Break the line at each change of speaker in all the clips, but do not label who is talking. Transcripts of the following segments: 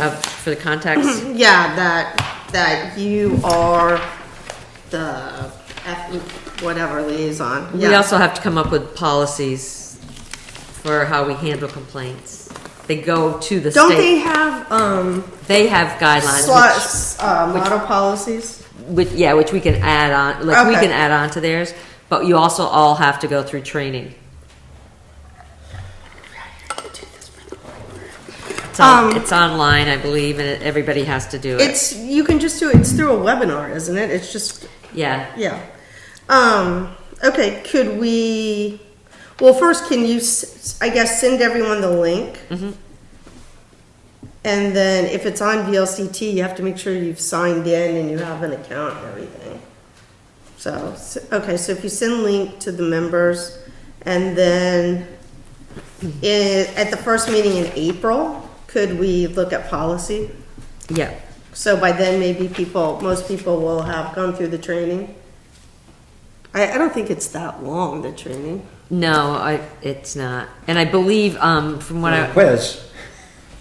Uh, for the contacts,
Yeah, that, that you are the, F- whatever liaison.
we
Yeah.
also have to come up with policies for how we handle complaints. They go to the
Don't they
state.
have, um,
They have guidelines,
slots, uh, model policies?
which, which, yeah, which we can add on, like, we
Okay.
can add on to theirs, but you also all have to go through training. It's on,
Um,
it's online, I believe, and everybody has to do it.
It's, you can just do, it. it's through a webinar, isn't it? It's just,
Yeah,
yeah. Um, okay, could we, well, first, can you, s- I guess, send everyone the link? And then if it's on VLCT, you have to make sure you've signed in and you have an account and everything. So, s- okay, so if you send link to the members and then i at the first meeting in April, could we look at policy?
yeah.
So by then, maybe people, most people will have gone through the training. I, I don't think it's that long, the training.
No, I, it's not. And I believe, um, from what I,
Quiz.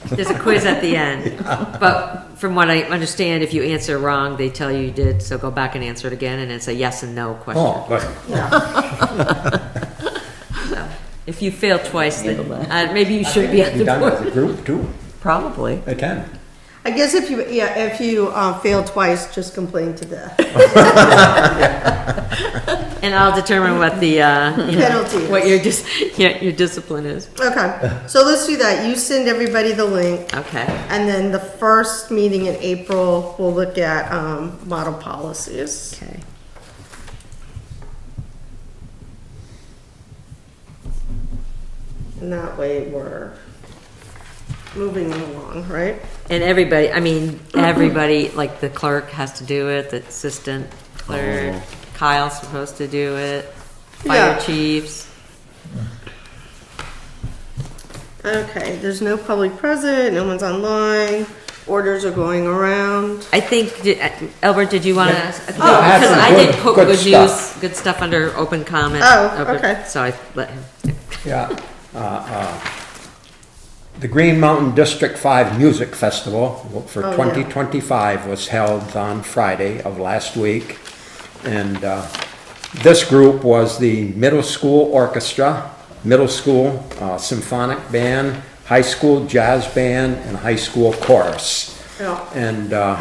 There's a quiz at the end. But from what I understand, if you answer wrong, they tell you you did, so go back and answer it again, and it's a yes and no question.
Oh, right.
If you fail twice, then uh, maybe you should be at
You
the
done as
board.
a group too?
Probably.
Attend.
I guess if you, yeah, if you, uh, fail twice, just complain to the
And I'll determine what the, uh, you know,
penalty. is.
what your, dis- yeah, your discipline is.
Okay, so let's do that. You send everybody the link,
Okay,
and then the first meeting in April, we'll look at um, model policies.
okay.
And that way, we're moving along, right?
And everybody, I mean, everybody, like the clerk has to do it, the assistant clerk, Kyle's supposed to do it,
Yeah.
fire chiefs.
Okay, there's no public present, no one's online, orders are going around.
I think, di- uh, Albert, did you want to?
Yeah. Oh,
ask? Because
I had some
I did
good-
put
good
good news,
stuff.
good stuff under open comment.
Oh,
Open-
okay.
So I let him.
Yeah. Uh, uh, The Green Mountain District Five Music Festival for
Oh, yeah.
twenty twenty-five was held on Friday of last week. And, uh, this group was the middle school orchestra, middle school uh, symphonic band, high school jazz band, and high school chorus.
Yeah.
And, uh,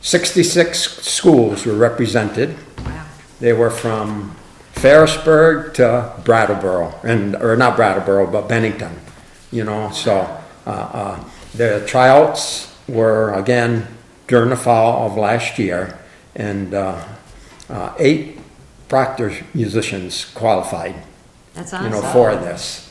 sixty-six schools were represented. They were from Ferrisburg to Brattleboro, and, or not Brattleboro, but Bennington, you know, so, uh, uh, the tryouts were, again, during the fall of last year, and, uh, uh, eight Proctor musicians qualified,
That's
you know,
awesome.
for this.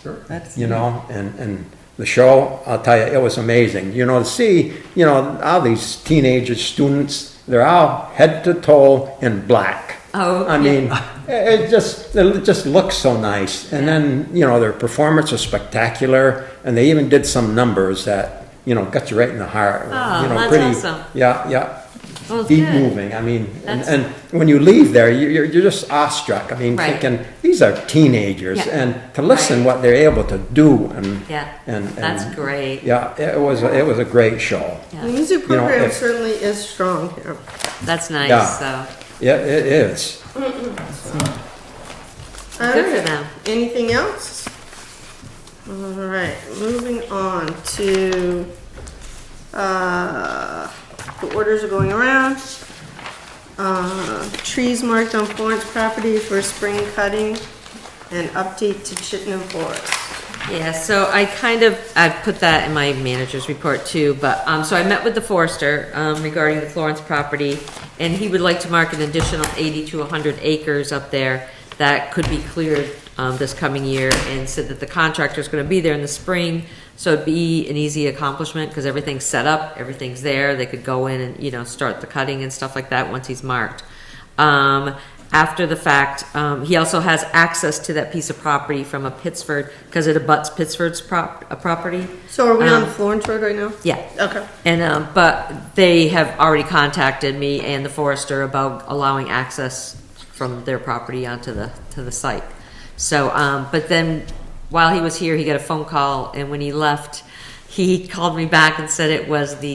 You know, and, and the show, I'll tell you, it was amazing, you know, to see, you know, all these teenagers, students, they're all head to toe in black.
Oh,
I mean, it it just, it just looks so nice, and then, you know, their performance was spectacular, and they even did some numbers that, you know, got you right in the heart.
Oh,
you know,
that's
pretty-
awesome.
Yeah, yeah,
Well,
deep
good.
moving, I mean, and,
That's-
and when you leave there, you- you're, you're just awestruck, I mean,
Right.
thinking, these are teenagers,
Yeah.
and to listen what they're able to do, and.
Yeah,
and-
that's
and-
great.
Yeah, it was, a- it was a great show.
The music
You know,
program
if-
certainly is strong here.
That's nice,
Yeah.
so,
Yeah, it is.
Good for them.
Okay, Anything else? All right, moving on to, uh, the orders are going around. Uh, trees marked on Florence property for spring cutting and update to Chittenden Forest.
yeah, so I kind of, I put that in my manager's report too, but, um, so I met with the forester, um, regarding the Florence property, and he would like to mark an additional eighty to hundred acres up there that could be cleared, um, this coming year, and said that the contractor's gonna be there in the spring, So it'd be an easy accomplishment because everything's set up, everything's there. They could go in and, you know, start the cutting and stuff like that once he's marked. Um, after the fact, um, he also has access to that piece of property from a Pittsford because it abuts Pittsford's prop, a property.
So are we on
Um,
Florence Road right now?
Yeah.
Okay.
And, um, but they have already contacted me and the forester about allowing access from their property onto the, to the site. So, um, but then while he was here, he got a phone call and when he left, he called me back and said it was the